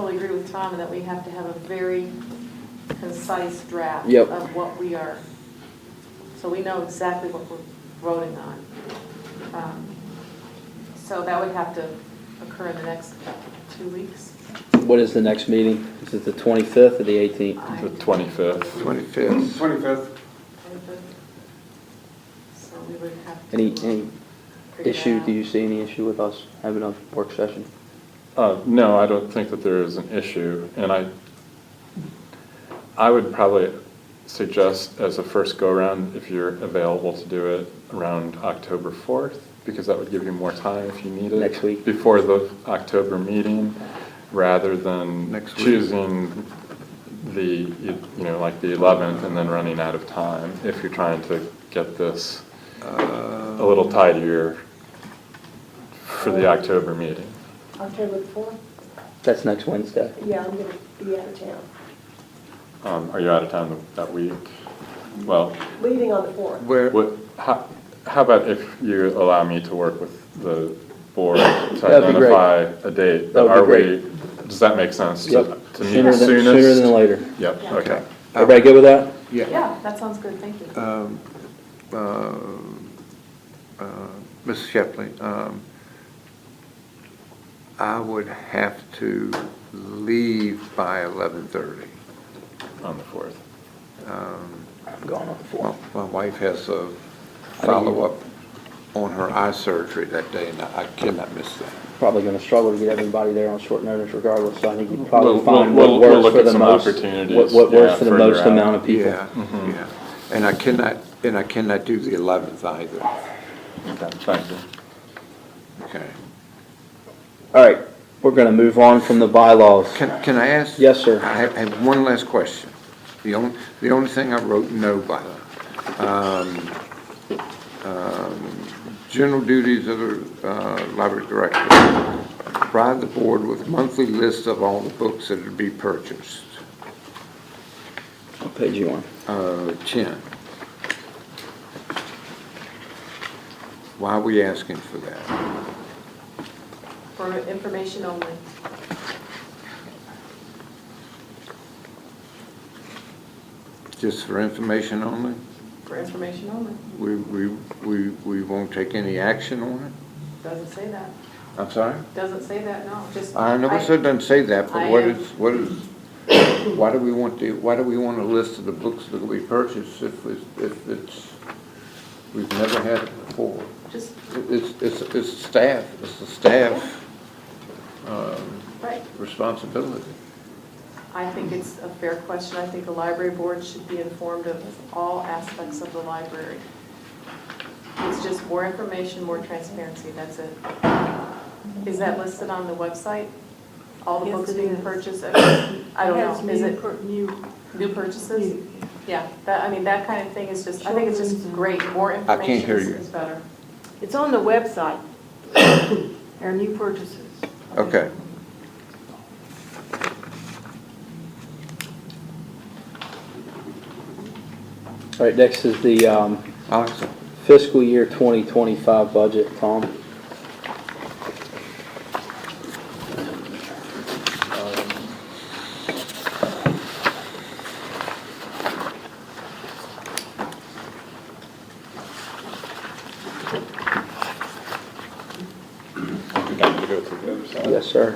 totally agree with Tom that we have to have a very concise draft Yep. of what we are, so we know exactly what we're voting on. Um, So that would have to occur in the next two weeks. What is the next meeting? Is it the 25th or the 18th? I- The 25th. 25th. 25th. So we would have to. Any, any figure that issue, out. do you see any issue with us having a work session? Uh, No, I don't think that there is an issue, and I, I would probably suggest as a first go-around, if you're available to do it around October 4th, because that would give you more time if you need it. Next week. Before the October meeting, rather than Next week. choosing the, you you know, like the 11th and then running out of time, if you're trying to get this a little tidier for the October meeting. October the fourth? That's next Wednesday. Yeah, I'm gonna be out of town, Um, are you out of town th- that week? Well, leaving on the fourth. Where, what, how, how about if you allow me to work with the board to That'd be great. identify a date? That would be Are we- great. Does that make sense to, Yep. to meet Sooner than, sooner soonest? than later. Yep, Yeah. okay. Everybody good with that? yeah. Yeah, that sounds good, thank you. Um, um, uh, Mrs. Shepley, um, I would have to leave by 11:30. On the fourth. Um, I'm gone on the well, 4th. My wife has a follow-up on her eye surgery that day, and I cannot miss that. Probably going to struggle to get everybody there on short notice regardless, so I think you We'll- probably find we'll- what we'll works look for at the some most. opportunities, What, what yeah, works for the further most out. amount of people. Yeah, yeah. And I cannot, and I cannot do the 11th either. Okay, thank you. Okay. All right, we're going to move on from the bylaws. Can, can I ask? Yes, sir. I have, I have one last question. The only, the only thing I wrote no by. Um, um, General duties of the uh, library director. Provide the board with monthly list of all the books that are to be purchased. What page you on? Uh, 10. Why are we asking for that? For information only. Just for information only? For information only. We, we, we we won't take any action on it? Doesn't say that. I'm sorry? Doesn't say that, no, just. I know it said doesn't say that, I but what am- is, what is, why do we want the, why do we want a list of the books that we purchased if it's, if it's, we've never had it before? Just, It's, it's, it's staff, it's the staff um, right. responsibility. I think it's a fair question. I think the library board should be informed of all aspects of the library. It's just more information, more transparency, that's it. Is that listed on the website? All the Yes, books it being is. purchased? I don't Has know, is new it per- New. new purchases? Yeah, that, I mean, that kind of thing is just, I think it's just Children's. great. More I can't information hear is you. is better. It's on the website, our new purchases. Okay. All right, next is the um, Alex, fiscal year 2025 budget, Tom. Uh, Yes, sir.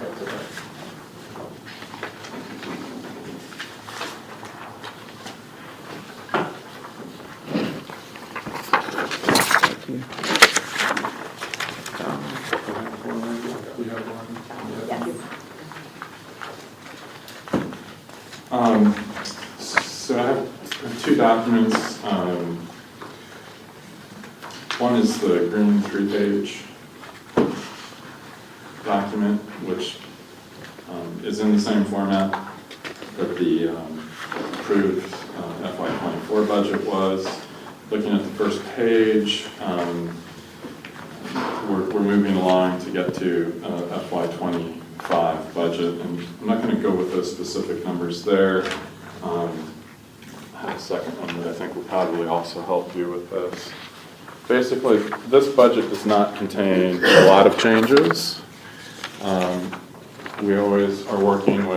Um, so I have two documents, um, one is the green three-page document, which, um, is in the same format that the, um, approved FY twenty-four budget was. Looking at the first page, um, we're, we're moving along to get to uh, FY twenty-five budget, and I'm not gonna go with those specific numbers there. Um, I have a second one that I think will probably also help you with this. Basically, this budget does not contain a lot of changes. Um, We always are working with